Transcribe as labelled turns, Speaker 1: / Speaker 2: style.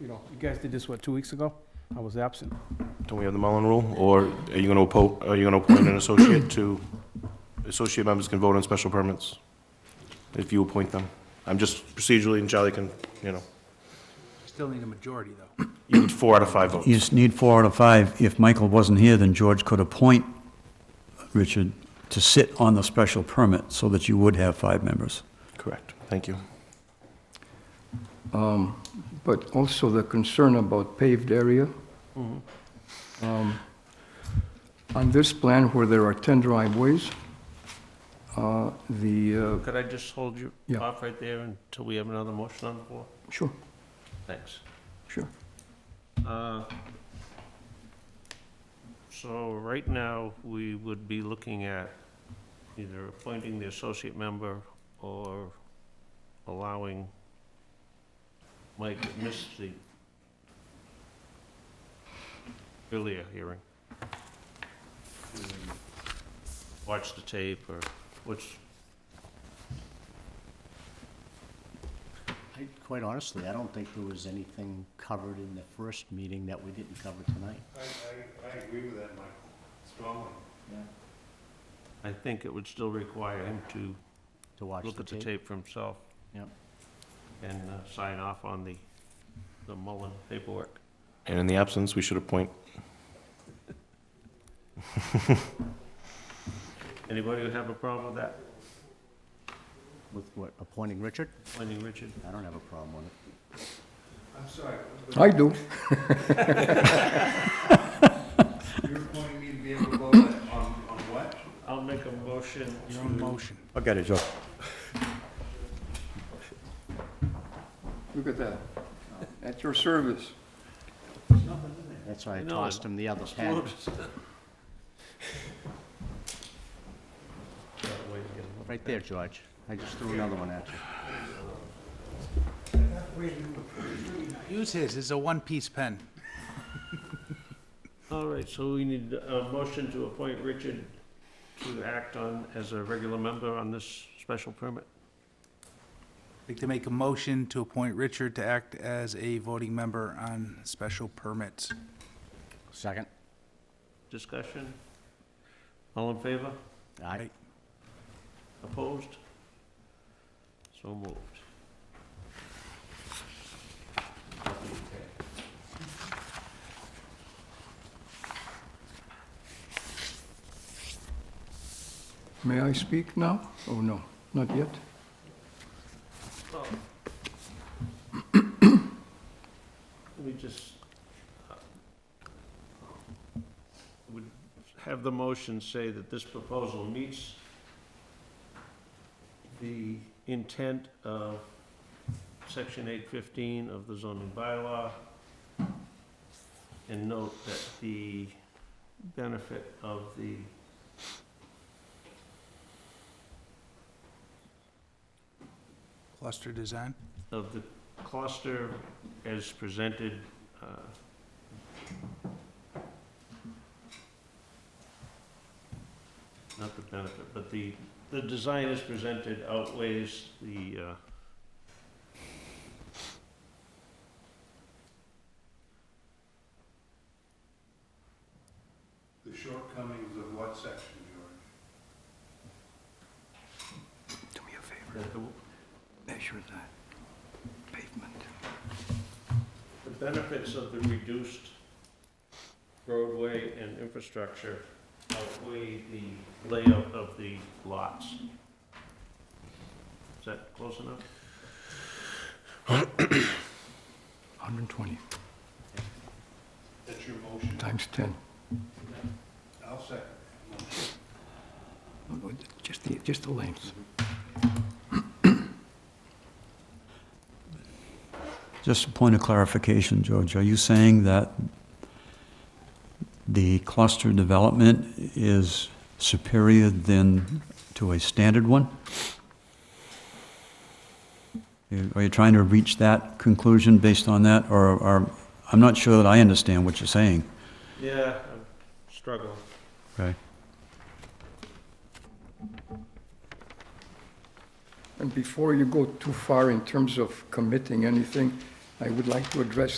Speaker 1: you know, you guys did this, what, two weeks ago? I was absent.
Speaker 2: Don't we have the Mullen Rule? Or are you gonna appoint, are you gonna appoint an associate to, associate members can vote on special permits? If you appoint them. I'm just procedurally, and Charlie can, you know,
Speaker 1: Still need a majority, though.
Speaker 2: you need four out of five votes.
Speaker 3: You just need four out of five. If Michael wasn't here, then George could appoint Richard to sit on the special permit so that you would have five members.
Speaker 2: Correct. Thank you.
Speaker 4: Um, But also the concern about paved area.
Speaker 1: Mm-hmm.
Speaker 4: Um, On this plan where there are 10 driveways, uh, the,
Speaker 5: Could I just hold you
Speaker 4: Yeah.
Speaker 5: off right there until we have another motion on the floor?
Speaker 4: uh, sure,
Speaker 5: Thanks.
Speaker 4: sure.
Speaker 5: Uh, So right now, we would be looking at either appointing the associate member or allowing Mike that missed the earlier hearing. to Watch the tape or what's,
Speaker 6: I- Quite honestly, I don't think there was anything covered in the first meeting that we didn't cover tonight.
Speaker 2: I, I, I agree with that, Michael, strongly.
Speaker 5: I think it would still require him to
Speaker 6: To watch
Speaker 5: look
Speaker 6: the
Speaker 5: at the
Speaker 6: tape.
Speaker 5: tape for himself.
Speaker 6: Yep.
Speaker 5: And uh, sign off on the, the Mullen paperwork.
Speaker 2: And in the absence, we should appoint,
Speaker 5: Anybody who have a problem with that?
Speaker 6: With what, appointing Richard?
Speaker 5: Pointing Richard?
Speaker 6: I don't have a problem with it.
Speaker 1: I'm sorry,
Speaker 4: uh, I do.
Speaker 1: you're appointing me to be able to vote on, on what?
Speaker 5: I'll make a motion
Speaker 1: Your own motion.
Speaker 3: I got it, Joe.
Speaker 4: Look at that. At your service.
Speaker 6: That's why I
Speaker 5: No,
Speaker 6: tossed him the other
Speaker 5: That way you
Speaker 6: pad.
Speaker 5: get a
Speaker 6: Right there, George. I just threw another one at you.
Speaker 7: Use his, it's a one-piece pen.
Speaker 5: All right, so we need a motion to appoint Richard to act on, as a regular member on this special permit.
Speaker 7: I'd Like to make a motion to appoint Richard to act as a voting member on special permits.
Speaker 6: Second?
Speaker 5: Discussion? All in favor?
Speaker 6: Aye.
Speaker 5: Opposed? So moved.
Speaker 4: May I speak now? Oh, no, not yet.
Speaker 5: Let me just, uh, would have the motion say that this proposal meets the intent of section eight fifteen of the zoning bylaw. And note that the benefit of the
Speaker 7: Cluster design.
Speaker 5: of the cluster as presented, uh, not the benefit, but the, the design as presented outweighs the, uh,
Speaker 1: The shortcomings of what section, George?
Speaker 4: Do me a favor,
Speaker 5: that the
Speaker 4: measure that pavement.
Speaker 5: the benefits of the reduced roadway and infrastructure outweigh the layout of the lots. Is that close enough?
Speaker 4: 120
Speaker 1: That's your motion.
Speaker 4: times 10.
Speaker 1: I'll second.
Speaker 4: No, no, Just the, just the length.
Speaker 3: Just a point of clarification, George. Are you saying that the cluster development is superior than to a standard one? You- Are you trying to reach that conclusion based on that, or, or, I'm not sure that I understand what you're saying.
Speaker 5: Yeah, I'm struggling.
Speaker 3: Okay.
Speaker 4: And before you go too far in terms of committing anything, I would like to address